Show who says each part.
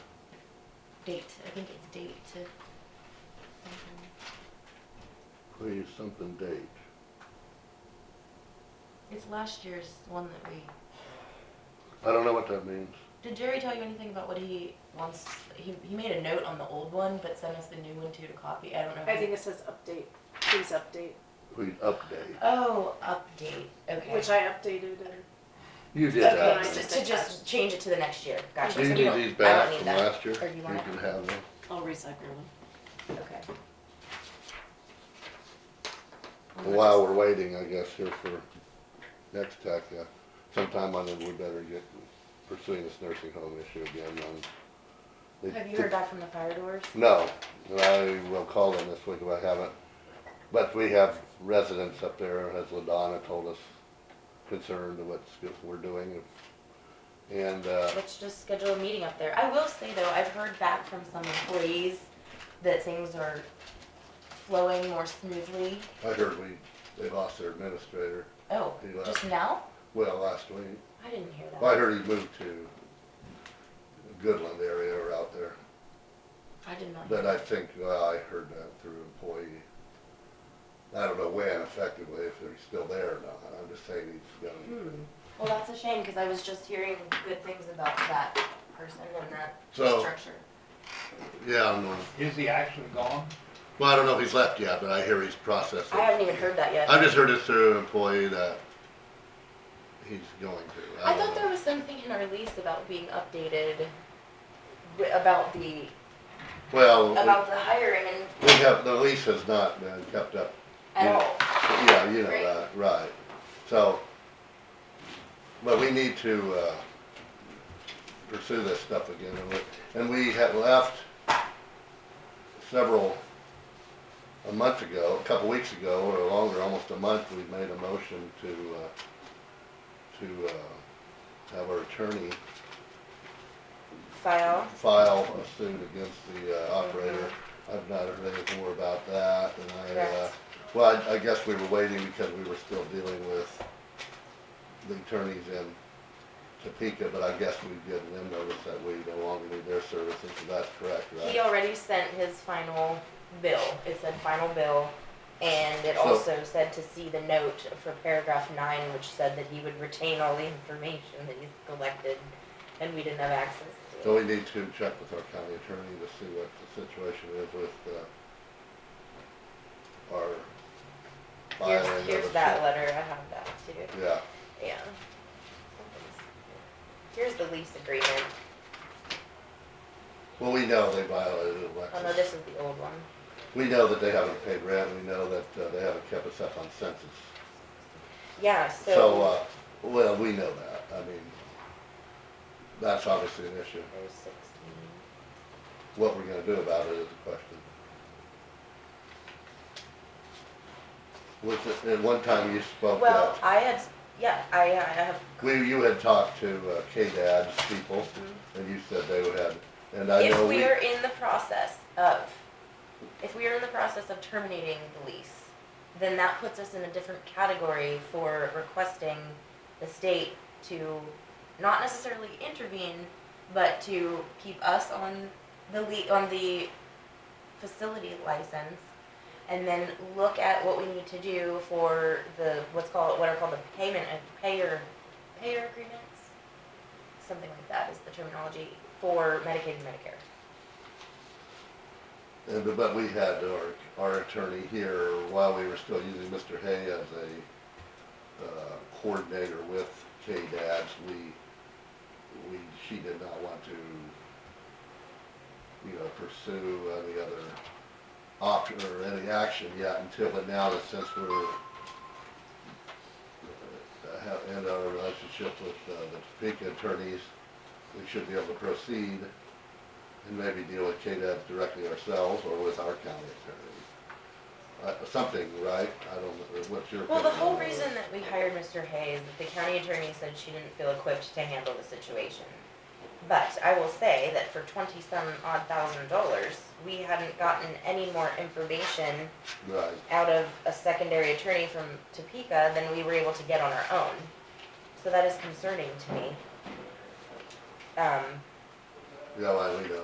Speaker 1: date, I think it's date to. mm-hmm.
Speaker 2: Please, something date.
Speaker 1: It's last year's one that we,
Speaker 2: I don't know what that means.
Speaker 1: did Jerry tell you anything about what he wants, he, he made a note on the old one, but sent us the new one too to copy, I don't know. if
Speaker 3: I
Speaker 1: he-
Speaker 3: think it says update, please update,
Speaker 2: Please update.
Speaker 1: Oh, update, okay.
Speaker 3: which I updated and
Speaker 2: You did
Speaker 3: Okay,
Speaker 2: that.
Speaker 3: so-
Speaker 1: To to just change it to the next year, gotcha.
Speaker 2: Do you
Speaker 1: So
Speaker 2: need
Speaker 1: don't-
Speaker 2: these
Speaker 1: I don't
Speaker 2: back
Speaker 1: need
Speaker 2: from
Speaker 1: that.
Speaker 2: last year?
Speaker 1: Or do you want
Speaker 2: can
Speaker 1: it?
Speaker 2: have them.
Speaker 4: I'll recycle them.
Speaker 1: Okay.
Speaker 2: While we're waiting, I guess, here for next tech, uh, sometime I think we better get pursuing this nursing home issue again on. they-
Speaker 1: Have you heard back from the fire doors?
Speaker 2: No, and I will call them this week if I haven't. But we have residents up there, as Ladonna told us, concerned of what we're doing. And, uh,
Speaker 1: Let's just schedule a meeting up there. I will say though, I've heard back from some employees that things are flowing more smoothly.
Speaker 2: I heard we, they lost their administrator,
Speaker 1: Oh,
Speaker 2: He left.
Speaker 1: just now?
Speaker 2: well, last week.
Speaker 1: I didn't hear
Speaker 2: Well, I
Speaker 1: that.
Speaker 2: heard he moved to Goodland area or out there,
Speaker 1: I did not. hear
Speaker 2: but I
Speaker 1: that.
Speaker 2: think, well, I heard that through employee. I don't know when effectively, if they're still there or not, I'm just saying he's gone.
Speaker 1: Hmm. Well, that's a shame because I was just hearing good things about that person and that
Speaker 2: So-
Speaker 1: structure.
Speaker 2: Hmm. Yeah, I don't know,
Speaker 5: Is he actually gone?
Speaker 2: well, I don't know if he's left yet, but I hear he's processing.
Speaker 1: I haven't even heard that yet.
Speaker 2: I've just heard it through employee that he's going to.
Speaker 1: I
Speaker 2: don't
Speaker 1: thought
Speaker 2: know.
Speaker 1: there was something in our lease about being updated, wi- about the,
Speaker 2: Well,
Speaker 1: about the hiring and
Speaker 2: we have, the lease has not been kept up
Speaker 1: at
Speaker 2: Yeah.
Speaker 1: all.
Speaker 2: Yeah, you know
Speaker 1: Right.
Speaker 2: that, right. So, but we need to, uh, pursue this stuff again, and we, and we had left several, a month ago, a couple weeks ago, or longer, almost a month, we made a motion to, uh, to, uh, have our attorney
Speaker 1: File.
Speaker 2: file a suit against the uh, operator. I've not heard anything more about that, and I, uh,
Speaker 1: Correct.
Speaker 2: well, I- I guess we were waiting because we were still dealing with the attorneys in Topeka, but I guess we've given them notice that we no longer need their services, so that's correct,
Speaker 1: He
Speaker 2: right?
Speaker 1: already sent his final bill. It said final bill. And it
Speaker 2: So-
Speaker 1: also said to see the note for paragraph nine, which said that he would retain all the information that he's collected and we didn't have access to.
Speaker 2: So
Speaker 1: it.
Speaker 2: we need to check with our county attorney to see what the situation is with, uh, our filing of
Speaker 1: Here's, here's
Speaker 2: the-
Speaker 1: that letter. I have that too.
Speaker 2: Yeah,
Speaker 1: Yeah. Here's the lease agreement.
Speaker 2: well, we know they violated it, Alexis.
Speaker 1: Oh no, this is the old one.
Speaker 2: We know that they haven't paid rent, we know that uh, they haven't kept us up on census.
Speaker 1: Yeah, so.
Speaker 2: So, uh, well, we know that, I mean, that's obviously an issue.
Speaker 1: There's sixteen.
Speaker 2: What we're gonna do about it is a question. Was it, at one time you spoke,
Speaker 1: Well,
Speaker 2: uh,
Speaker 1: I had, yeah, I, I have
Speaker 2: we, you had talked to uh, KDAD's people, and you said they had, and I know
Speaker 1: If Mm-hmm. we
Speaker 2: Uh, we,
Speaker 1: are in the process of, if we are in the process of terminating the lease, then that puts us in a different category for requesting the state to not necessarily intervene, but to keep us on the le, on the facility license. And then look at what we need to do for the, what's called, what are called the payment, uh, payer, payer agreements? something like that is the terminology for Medicaid and Medicare.
Speaker 2: and- but we had our, our attorney here while we were still using Mr. Hay as a uh, coordinator with KDAD's, we we, she did not want to, you know, pursue any other option or any action yet until, but now that since we're, uh, have, in our relationship with uh, the Topeka attorneys, we should be able to proceed and maybe deal with KDAP directly ourselves or with our county attorney. Uh, something, right? I don't, know. what's your?
Speaker 1: Well, the
Speaker 2: opinion
Speaker 1: whole
Speaker 2: on this?
Speaker 1: reason that we hired Mr. Hay is that the county attorney said she didn't feel equipped to handle the situation. But I will say that for twenty-some odd thousand dollars, we hadn't gotten any more information
Speaker 2: Right.
Speaker 1: out of a secondary attorney from Topeka than we were able to get on our own. So that is concerning to me. Um,
Speaker 2: Yeah, well, we know.